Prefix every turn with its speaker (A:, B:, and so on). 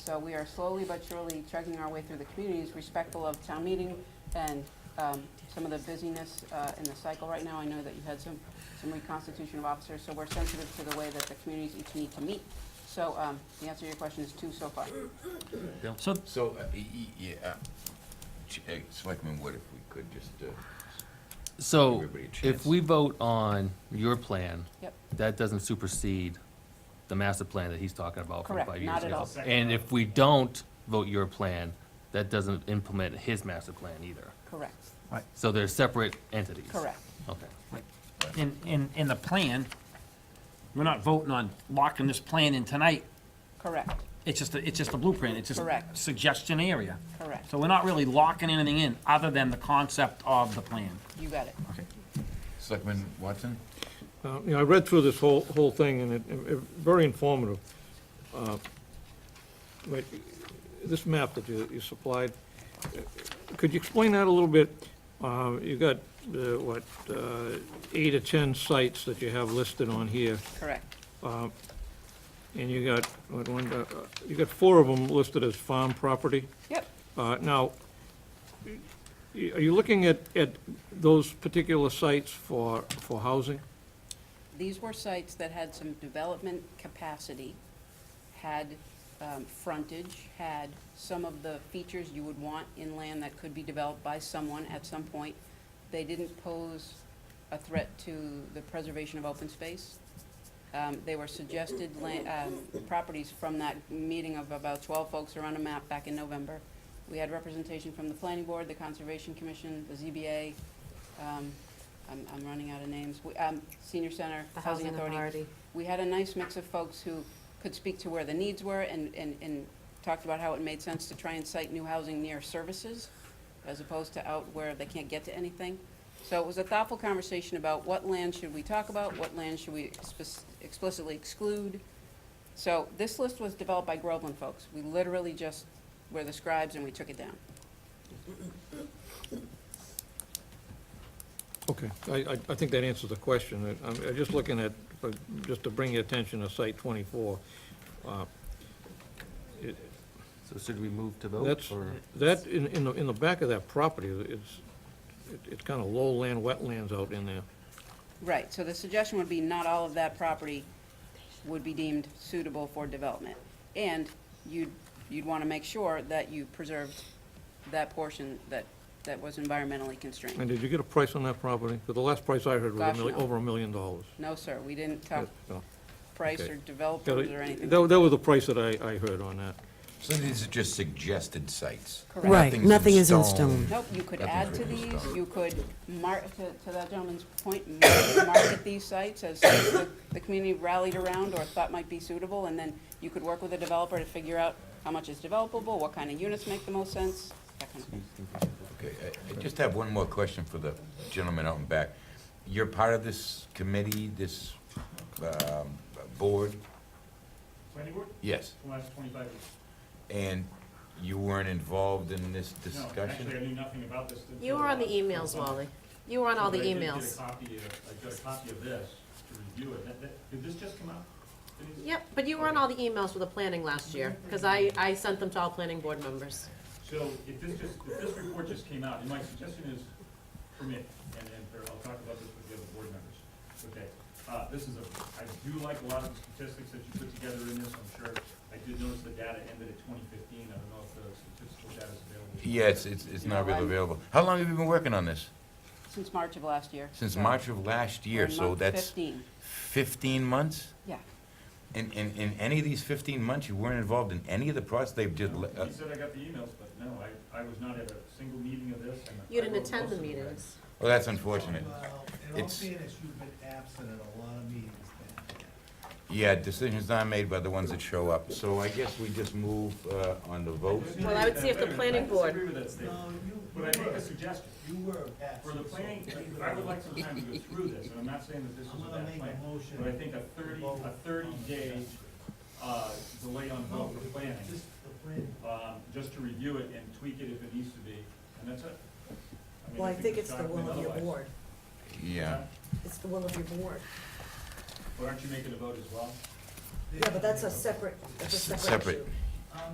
A: So we are slowly but surely chugging our way through the communities, respectful of town meeting and um, some of the busyness uh, in the cycle right now. I know that you had some, some reconstitution of officers, so we're sensitive to the way that the communities each need to meet. So um, the answer to your question is two so far.
B: So,
C: So, uh, y- y- yeah, uh, Ch- uh, Selectman Wood, if we could just, uh,
B: so
C: Everybody a chance.
B: if we vote on your plan,
A: Yep,
B: that doesn't supersede the master plan that he's talking about from
A: Correct,
B: five years ago.
A: not at all.
B: And if we don't vote your plan, that doesn't implement his master plan either.
A: correct,
B: So they're separate entities.
A: correct.
B: Okay.
D: in, in, in the plan, we're not voting on locking this plan in tonight.
A: Correct,
D: It's just, a- it's just a blueprint. It's just a
A: Correct.
D: suggestion area.
A: correct.
D: So we're not really locking anything in other than the concept of the plan.
A: You got it.
C: Selectman Watson?
E: Uh, You know, I read through this whole, whole thing, and it, it- very informative. Uh, But this map that you, you supplied, uh, could you explain that a little bit? Uh, You got, uh, what, uh, eight or 10 sites that you have listed on here, Uh,
A: Correct,
E: and you got, what, one, uh, you got four of them listed as farm property?
A: yep.
E: Uh, Now, y- are you looking at, at those particular sites for, for housing?
A: These were sites that had some development capacity, had um, frontage, had some of the features you would want in land that could be developed by someone at some point. They didn't pose a threat to the preservation of open space. Um, They were suggested la- um, properties from that meeting of about 12 folks around a map back in November. We had representation from the planning board, the conservation commission, the ZBA, um, I'm, I'm running out of names, We- um, senior center,
F: The
A: housing authority. We had a nice mix of folks who could speak to where the needs were and, and, and talked about how it made sense to try and site new housing near services as opposed to out where they can't get to anything. So it was a thoughtful conversation about what land should we talk about, what land should we spec- explicitly exclude. So this list was developed by Groveland folks. We literally just were the scribes and we took it down.
E: Okay, I, I, I think that answers the question. I- I'm, I'm just looking at, uh, just to bring your attention to site twenty-four. Uh, it-
B: So should we move to vote
E: That's,
B: or?
E: that, in, in the, in the back of that property, it's, it- it's kind of lowland, wetlands out in there.
A: Right, so the suggestion would be not all of that property would be deemed suitable for development. And you'd, you'd want to make sure that you preserved that portion that, that was environmentally
E: And
A: constrained.
E: did you get a price on that property? 'Cause the last price I heard was a
A: Gosh,
E: million,
A: no.
E: over a million dollars.
A: No, sir, we didn't talk
E: Yeah, no.
A: price
E: okay.
A: or
E: Yeah,
A: developers or anything.
E: That, that was the price that I, I heard on that.
C: So these are just suggested sites?
A: Correct.
F: Right,
C: Nothing's
F: nothing is in
C: stone.
F: stone.
A: Nope, you could
C: Nothing's
A: add to
C: written in
A: these,
C: stone.
A: you could mark, to, to that gentleman's point, mar- market these sites as sites that the community rallied around or thought might be suitable, and then you could work with a developer to figure out how much is developable, what kind of units make the most sense, that kind of thing.
C: Okay, uh, I- I just have one more question for the gentleman out in back. You're part of this committee, this um, board?
G: Planning board,
C: Yes.
G: for the last twenty-five years.
C: And you weren't involved in this
G: No, actually, I
C: discussion?
G: knew nothing about this. uh,
F: You were on the emails, Wally. You were on all the
G: But I did get a
F: emails.
G: copy of- I got a copy of this to review it. That- that- Did this just come out? Denise?
F: Yep, but you were on all the emails with the planning last year, because I, I sent them to all planning board members.
G: So if this just, if this report just came out, and my suggestion is, for me, and, and for, I'll talk about this with the other board members, okay? Uh, this is a, I do like a lot of the statistics that you put together in this, I'm sure. I did notice the data ended at twenty fifteen, I don't know if the statistical data is available.
C: Yes, it's, it's not
A: No,
C: really
A: I'm-
C: available. How long have you been working on this?
A: Since March of last year.
C: Hmm. Since
A: So
C: March of last
A: we're
C: year,
A: in
C: so
A: month
C: that's
A: Fifteen,
C: 15 months?
A: yeah.
C: In, in, in any of these 15 months, you weren't involved in any of the process? They've just,
G: No,
C: le- uh,
G: He said I got the emails, but no, I, I was not at a single meeting of this. and I
F: You didn't
G: wrote
F: attend
G: most
F: the
G: of it.
F: meetings.
C: well, that's unfortunate.
H: Well, in all
C: It's-
H: fairness, you've been absent at a lot of meetings then.
C: Yeah, decisions not made by the ones that show up. So I guess we just move uh, on the vote.
F: Well, I would see if the planning
G: I
F: board,
G: disagree with that statement,
H: No, you,
G: but I make a suggestion.
H: you were absent.
G: For the planning, I would like some time to go through this, and I'm not saying that this is
H: I'm
G: a
H: gonna
G: bad
H: make
G: plan,
H: a motion.
G: but I think a thirty, a thirty-day, uh, delay on vote for planning,
H: Just the planning.
G: um, just to review it and tweak it if it needs to be, and that's it. mean,
I: Well, I think it's the
G: shock me
I: will of your
G: otherwise.
I: board.
C: Yeah.
I: It's the will of your board.
G: But aren't you making a vote as well?
I: Yeah, but that's a separate, that's a separate
C: S- separate.
I: issue.